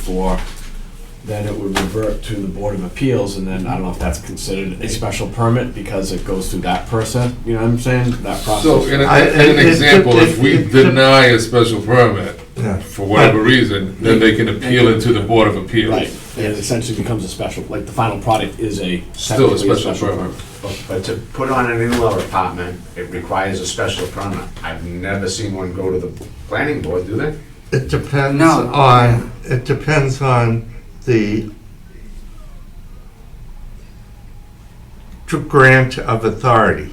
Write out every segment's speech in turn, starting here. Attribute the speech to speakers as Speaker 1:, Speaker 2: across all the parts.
Speaker 1: for, then it would revert to the Board of Appeals, and then I don't know if that's considered a special permit because it goes through that person, you know what I'm saying? That
Speaker 2: So,
Speaker 1: process.
Speaker 2: in, a-
Speaker 3: I-
Speaker 2: in
Speaker 3: it-
Speaker 2: an
Speaker 3: it-
Speaker 2: example, if
Speaker 3: it-
Speaker 2: we
Speaker 3: it-
Speaker 2: deny a special permit
Speaker 3: Yeah.
Speaker 2: for whatever reason, then they can appeal it to the Board of
Speaker 1: Right,
Speaker 2: Appeals.
Speaker 1: and it essentially becomes a special, like the final product is a.
Speaker 2: Still a
Speaker 1: technically
Speaker 2: special permit.
Speaker 4: But to put on an in-law apartment, it requires a special permit. I've never seen one go to the planning board, do they?
Speaker 3: It depends
Speaker 5: No.
Speaker 3: on, it depends on the to grant of authority.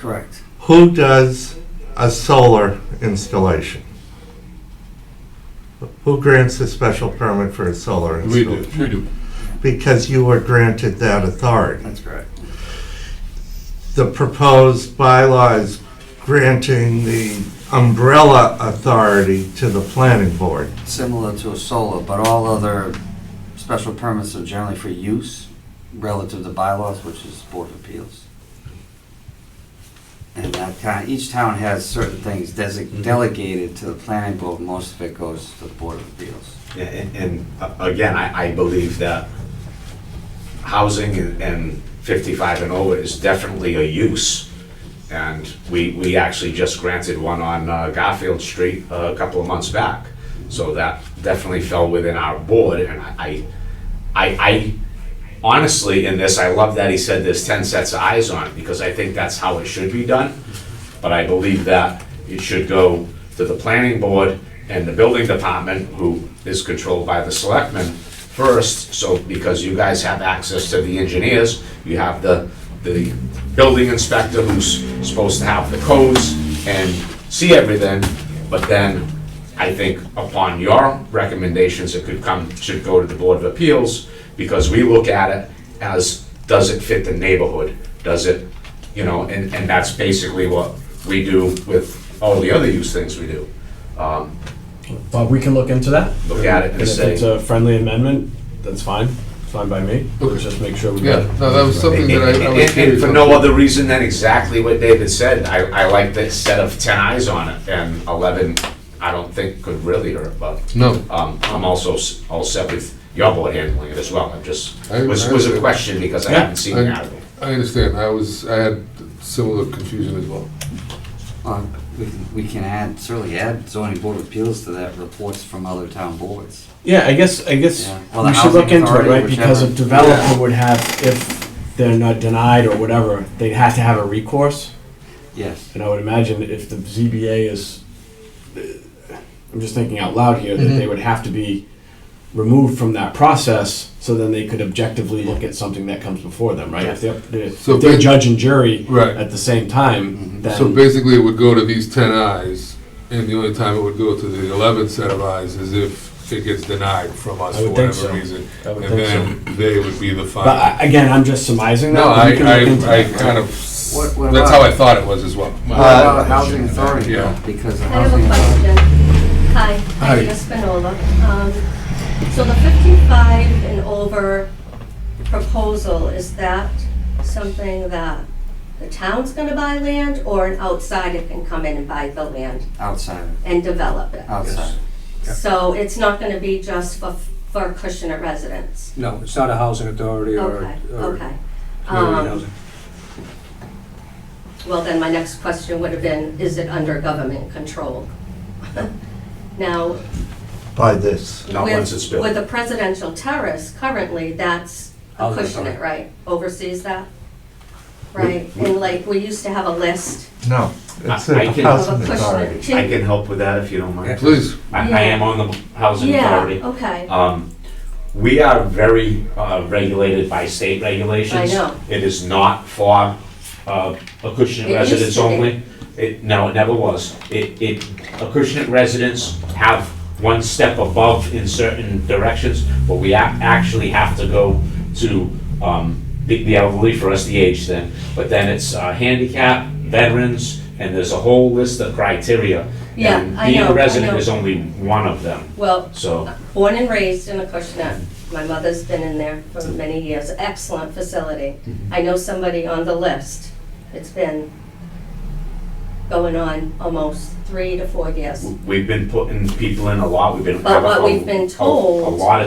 Speaker 5: Correct.
Speaker 3: Who does a solar installation? Who grants a special permit for a solar
Speaker 2: We
Speaker 3: installation?
Speaker 2: do, we do.
Speaker 3: Because you were granted that authority.
Speaker 5: That's correct.
Speaker 3: the proposed bylaw is granting the umbrella authority to the planning board.
Speaker 5: Similar to a solar, but all other special permits are generally for use relative to bylaws, which is Board of Appeals. And that kind, each town has certain things desig- delegated to the planning board, most of it goes to the Board of Appeals.
Speaker 4: A- And, and uh, again, I, I believe that housing and- and fifty-five and over is definitely a use. And we, we actually just granted one on uh, Garfield Street uh, a couple of months back. So that definitely fell within our board and I, I, I honestly, in this, I love that he said there's ten sets of eyes on it because I think that's how it should be done. But I believe that it should go to the planning board and the building department, who is controlled by the selectmen first. So, because you guys have access to the engineers, you have the, the building inspector who's supposed to have the codes and see everything. But then, I think upon your recommendations, it could come, should go to the Board of Appeals, because we look at it as, does it fit the neighborhood? Does it you know, and, and that's basically what we do with all the other use things we do. Um,
Speaker 1: But we can look into that.
Speaker 4: Look at it
Speaker 1: And
Speaker 4: and
Speaker 1: if it's
Speaker 2: uh,
Speaker 4: say,
Speaker 1: a friendly amendment, that's fine, it's fine by me, let's just make sure we.
Speaker 2: Yeah, no, that was something
Speaker 4: and,
Speaker 2: that I, I was
Speaker 4: and- and
Speaker 2: curious.
Speaker 4: for
Speaker 2: on.
Speaker 4: no other reason than exactly what David said, I, I like the set of ten eyes on it, and eleven, I don't think could really hurt, but,
Speaker 2: No,
Speaker 4: um, I'm also s- all set with your board handling it as well, I'm just,
Speaker 2: I-
Speaker 4: was,
Speaker 2: I-
Speaker 4: was a question because I
Speaker 1: Yeah.
Speaker 4: haven't seen
Speaker 2: I-
Speaker 4: that.
Speaker 2: I understand, I was, I had similar confusion as well.
Speaker 5: Uh, we can- We can add, certainly add zoning board of appeals to that, reports from other town boards.
Speaker 1: Yeah, I guess, I guess
Speaker 5: Yeah. Well, the
Speaker 1: we should look
Speaker 5: housing
Speaker 1: into it,
Speaker 5: authority,
Speaker 1: right, because a
Speaker 5: whichever.
Speaker 1: developer would have, if they're not denied or whatever, they'd have to have a recourse.
Speaker 5: Yes,
Speaker 1: And I would imagine if the ZBA is, I'm just thinking out loud here,
Speaker 2: Mm-hmm.
Speaker 1: that they would have to be removed from that process, so then they could objectively look at something that comes before them, right? If they're, if
Speaker 2: So
Speaker 1: they're
Speaker 2: ba-
Speaker 1: judge and jury
Speaker 2: Right. Mm-hmm.
Speaker 1: at the same time,
Speaker 2: So
Speaker 1: then,
Speaker 2: basically, it would go to these ten eyes, and the only time it would go to the eleventh set of eyes is if it gets denied from us
Speaker 1: I
Speaker 2: for
Speaker 1: would think
Speaker 2: whatever
Speaker 1: so.
Speaker 2: reason.
Speaker 1: I would
Speaker 2: And
Speaker 1: think
Speaker 2: then they would be the
Speaker 1: but
Speaker 2: final.
Speaker 1: I- again, I'm just surmising that.
Speaker 2: No,
Speaker 1: but
Speaker 2: I,
Speaker 1: we can look into
Speaker 2: I, I
Speaker 1: that.
Speaker 2: kind of,
Speaker 5: What- what
Speaker 2: that's how
Speaker 5: about- Uh,
Speaker 2: I thought it was as well.
Speaker 5: What about housing authority, though?
Speaker 2: Yeah.
Speaker 5: because the
Speaker 6: I have
Speaker 5: housing.
Speaker 6: a
Speaker 5: authority-
Speaker 6: question. Hi,
Speaker 2: Hi.
Speaker 6: Andrea Spinola. Um, So the 55 and over proposal, is that something that the town's going to buy land or an outsider can come in and buy the land
Speaker 5: Outside,
Speaker 6: and develop it?
Speaker 5: outside.
Speaker 6: So it's not going to be just for for Kushner residents?
Speaker 7: No, it's not a housing authority or.
Speaker 6: Okay,
Speaker 7: or
Speaker 6: okay.
Speaker 7: community
Speaker 6: Um,
Speaker 7: housing.
Speaker 6: Well, then my next question would have been, is it under government control? Now,
Speaker 3: By this,
Speaker 4: Not
Speaker 6: With-
Speaker 4: once it's built.
Speaker 6: With a presidential terrace currently, that's a
Speaker 7: Housing
Speaker 6: cushion it,
Speaker 7: authority.
Speaker 6: right? Oversees that? Right, and like, we used to have a list
Speaker 3: no, it's
Speaker 4: I- I
Speaker 3: a
Speaker 4: can-
Speaker 6: of
Speaker 3: housing
Speaker 6: a
Speaker 3: authority.
Speaker 6: cushion.
Speaker 4: I can help with that if you don't mind.
Speaker 2: Please,
Speaker 4: I, I am on the housing
Speaker 6: Yeah,
Speaker 4: authority.
Speaker 6: okay,
Speaker 4: Um, We are very uh, regulated by state regulations.
Speaker 6: I know.
Speaker 4: It is not for uh, Acushnet
Speaker 6: It used
Speaker 4: residents
Speaker 6: to be.
Speaker 4: only. It, no, it never was. It, it, Acushnet residents have one step above in certain directions, but we ac- actually have to go to um, the the elderly for us, the age then. But then it's uh, handicap, veterans, and there's a whole list of criteria.
Speaker 6: Yeah,
Speaker 4: And
Speaker 6: I
Speaker 4: Being
Speaker 6: know, I
Speaker 4: a resident
Speaker 6: know.
Speaker 4: is only one of them,
Speaker 6: well,
Speaker 4: so.
Speaker 6: born and raised in a Acushnet. My mother's been in there for many years, excellent
Speaker 4: Mm-hmm.
Speaker 6: facility. I know somebody on the list. It's been going on almost three to four years.
Speaker 4: We've been putting people in a lot, we've been.
Speaker 6: But what
Speaker 4: a-
Speaker 6: we've been
Speaker 4: a-
Speaker 6: told-
Speaker 4: A lot of